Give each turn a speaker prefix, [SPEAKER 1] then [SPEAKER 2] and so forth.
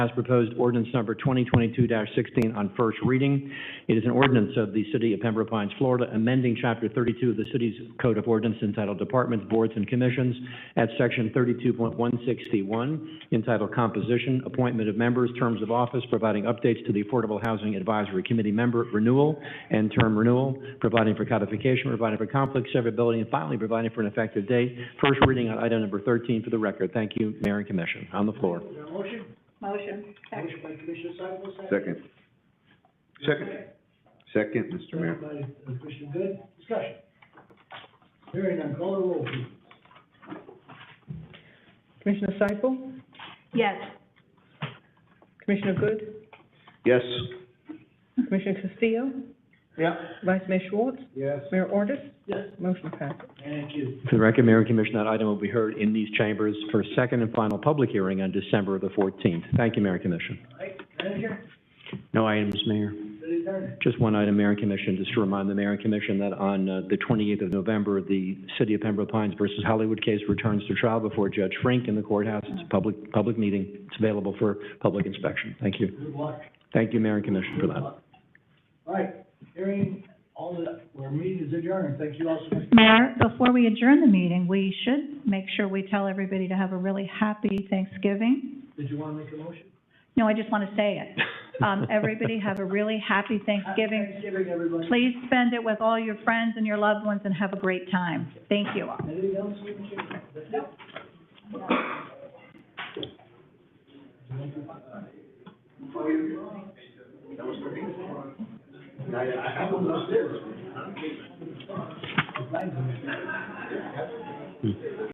[SPEAKER 1] as proposed ordinance number 2022-16 on first reading. It is an ordinance of the City of Pembroke Pines, Florida, amending Chapter 32 of the city's Code of Ordinance entitled Departments, Boards, and Commissions at Section 32.161, entitled Composition, Appointment of Members, Terms of Office, providing updates to the Affordable Housing Advisory Committee member renewal and term renewal, providing for codification, providing for conflict severability, and finally, providing for an effective date. First reading on item number 13 for the record. Thank you, Mayor and Commission. On the floor.
[SPEAKER 2] Is there a motion?
[SPEAKER 3] Motion.
[SPEAKER 2] Motion by Commissioner Cyphal, second.
[SPEAKER 4] Second. Second. Second, Mr. Mayor.
[SPEAKER 2] Second by Commissioner Good, discussion. Hearing none, call the roll, please.
[SPEAKER 5] Commissioner Seifel?
[SPEAKER 3] Yes.
[SPEAKER 5] Commissioner Good?
[SPEAKER 4] Yes.
[SPEAKER 5] Commissioner Castillo?
[SPEAKER 2] Yeah.
[SPEAKER 5] Vice Mayor Schwartz?
[SPEAKER 2] Yes.
[SPEAKER 5] Mayor Ordus?
[SPEAKER 2] Yes.
[SPEAKER 5] Motion passes.
[SPEAKER 2] Thank you.
[SPEAKER 1] For the record, Mayor and Commission, that item will be heard in these chambers for second and final public hearing on December the 14th. Thank you, Mayor and Commission.
[SPEAKER 2] Right, manager,
[SPEAKER 1] No items, Mayor.
[SPEAKER 2] city attorney.
[SPEAKER 1] Just one item, Mayor and Commission, just to remind the Mayor and Commission that on uh, the 28th of November, the City of Pembroke Pines versus Hollywood case returns to trial before Judge Frank in the courthouse. It's a public, public meeting. It's available for public inspection. Thank you.
[SPEAKER 2] Good luck.
[SPEAKER 1] Thank you, Mayor and Commission, for
[SPEAKER 2] Good
[SPEAKER 1] that.
[SPEAKER 2] luck. All right, hearing all the, our meeting is adjourned, thank you all so much.
[SPEAKER 3] Mayor, before we adjourn the meeting, we should make sure we tell everybody to have a really happy Thanksgiving.
[SPEAKER 2] Did you wanna make a motion?
[SPEAKER 3] No, I just want to say it. Um, everybody have a really happy
[SPEAKER 2] Happy
[SPEAKER 3] Thanksgiving.
[SPEAKER 2] Thanksgiving, everybody.
[SPEAKER 3] Please spend it with all your friends and your loved ones and have a great time. Thank you all.
[SPEAKER 2] Anything else we can share? That's it.